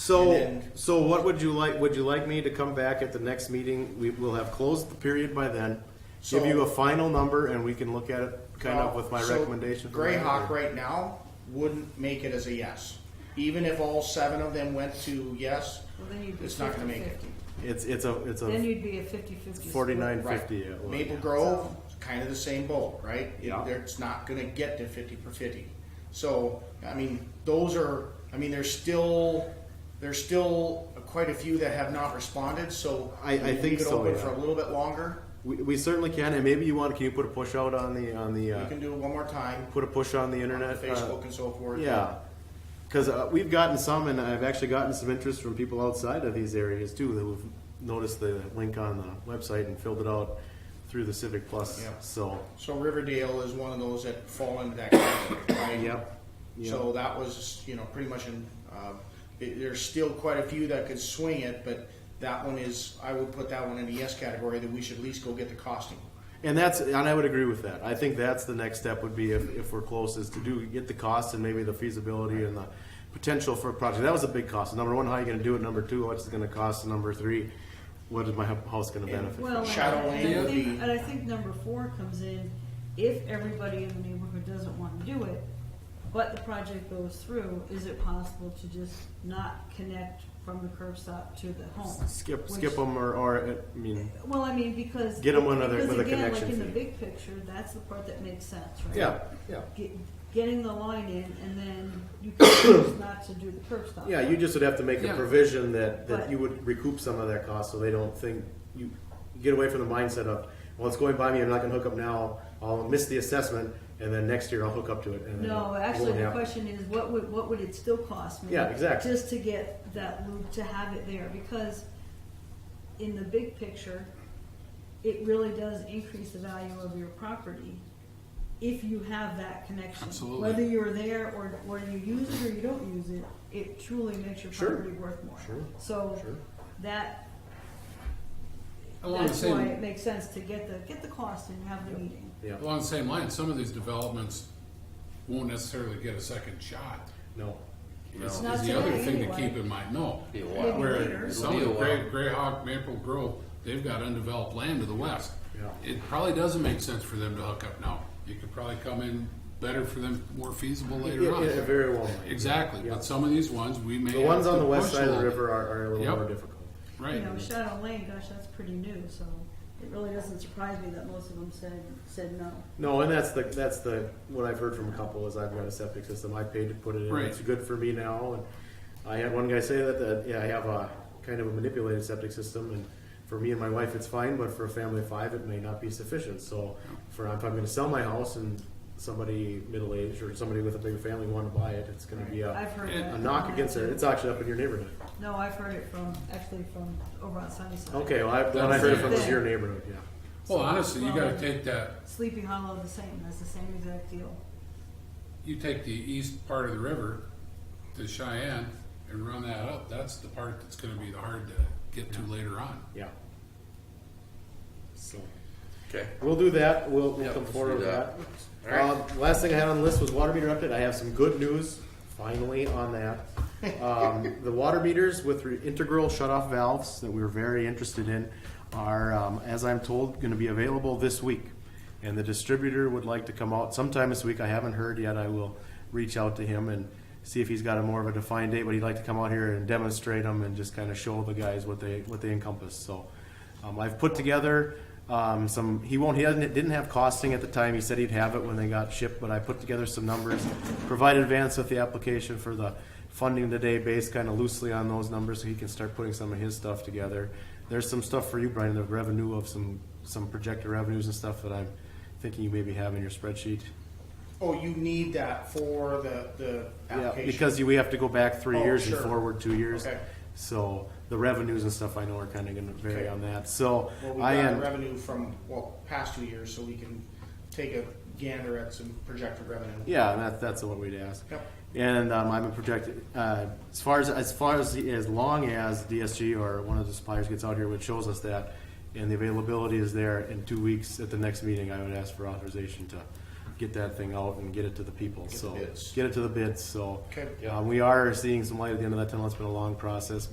So, And then- so what would you like, would you like me to come back at the next meeting? We will have closed the period by then. Give So- you a final number and we can look at it kind of with my So, recommendation. for Greyhawk that. right now wouldn't make it as a yes. Even if all seven of them went to yes, Well, then you'd be It's not gonna make it. 50-50. It's, it's a, it's Then a you'd be a fifty-fifty. split. forty-nine Right. fifty. at one, Maple yeah. Grove, kind of the same boat, right? It- Yeah. It's not gonna get to fifty per fifty. So, I mean, those are, I mean, there's still, there's still quite a few that have not responded, so. I- I we think Leave it so, open yeah. for a little bit longer. We, we certainly can, and maybe you want, can you put a push out on the, on the, We uh, can do it one more time, put a push on the on internet? uh, Facebook and so forth. Yeah, because uh, we've gotten some, and I've actually gotten some interest from people outside of these areas too that have noticed the link on the website and filled it out through the Civic Plus. Yeah. So, So Riverdale is one of those that fall into that category, right? yep. yep. So that was, you know, pretty much in, uh, it- there's still quite a few that could swing it, but that one is, I would put that one in the yes category that we should at least go get the costing. and that's and I would agree with that. I think that's the next step would be if, if we're close is to do get the cost and maybe the feasibility and the potential for a project. That was a big cost. Number one, how are you going to do it? Number two, what's it going to cost? And number three, what is my house going to And- benefit? Well, Shadow and I Lane would think- be- And I think number four comes in, if everybody in the neighborhood doesn't want to do it, but the project goes through, is it possible to just not connect from the curb stop to the home? skip Which- skip them or, or I mean Well, I mean, because. Get 'em another- because with a again, connection Like in fee. the big picture, that's the part that makes sense, right? yeah yeah. Get- Getting the line in and then you can choose not to do the curb stop. Yeah, you just would have to make a Yeah. provision that, that Right. you would recoup some of that cost, so they don't think, you get away from the mindset of, well, it's going by me, I'm not gonna hook up now, I'll miss the assessment, and then next year I'll hook up to it. and then No, it actually, won't the happen. question is, what would, what would it still cost me? Yeah, exactly. Just to get that loop, to have it there, because in the big picture, it really does increase the value of your property if you have that connection. Absolutely. Whether you're there or, or you use it or you don't use it, it truly makes your Sure. property worth more. Sure. So Sure. that, Along the that's why it same, makes sense to get the, get the cost and have the meeting. Yeah, along the same line, some of these developments won't necessarily get a second shot. no, Is Not is the other today, thing to anyway. keep in mind, no. Be a while. Maybe later. Where some of the It'll be a Grey, Greyhawk, Maple Grove, they've got undeveloped land to the west. Yeah. It probably doesn't make sense for them to hook up now. It could probably come in better for them, more feasible it, later it on. very well might. Exactly, Yeah. but some of these ones, we may. The ones have on to the west push a side of the little river are, are a little Yep. more difficult. You Right, know, Shadow Lane, gosh, that's pretty new, so it really doesn't surprise me that most of them said, said no. No, and that's the, that's the, what I've heard from a couple is I've got a septic system, I paid to put it in, Right. it's good for me now, and I had one guy say that, that, yeah, I have a kind of a manipulated septic system, and for me and my wife, it's fine, but for a family of five, it may not be sufficient, so for, if I'm gonna sell my house and somebody middle-aged or somebody with a bigger family wanna buy it, it's gonna be I've a, heard And- that. a knock from against that, it, too. it's auctioned up in your neighborhood. No, I've heard it from, actually from over on Sunnyside. Okay, well, I, what I heard from was That's- your neighborhood, yeah. well, honestly, you gotta take that, Sleepy Hollow, the same, that's the same exact deal. you take the east part of the river to Cheyenne and run that up, that's the part that's gonna be the hard to get to later on. Yeah. So, Okay. we'll do that, we'll, we'll Yeah, come let's forward with do that. that. Uh, last thing I had on the list was water meter update, I have some good news, finally on that. Um, the water meters with re- integral shut-off valves that we were very interested in are, um, as I'm told, gonna be available this week. And the distributor would like to come out sometime this week, I haven't heard yet, I will reach out to him and see if he's got a more of a defined date, but he'd like to come out here and demonstrate them and just kinda show the guys what they, what they encompass, so. Um, I've put together um, some. He won't. He hasn't, didn't have costing at the time. He said he'd have it when they got shipped. But I put together some numbers, provided Vance with the application for the funding today, based kind of loosely on those numbers, so he can start putting some of his stuff together. There's some stuff for you, Brian. The revenue of some some projected revenues and stuff that I'm thinking you maybe have in your spreadsheet. Oh, you need that for the, the Yeah, application. because you, we have to go back three Oh, years sure. and forward two years. Okay. So the revenues and stuff I know are kind of going to vary Okay. on that. So Well, we I got am. revenue from, well, past two years, so we can take a gander at some projected revenue. Yeah, and that, that's what we'd ask. Yep. And um, I'm a projected uh, as far as as far as as long as DSG or one of the suppliers gets out here, which shows us that, and the availability is there in two weeks at the next meeting, I would ask for authorization to get that thing out and get it to the people, the so. bids. Get it to the bids, so. um, Okay. uh, We are seeing some light at the end of that tunnel. It's been a long process,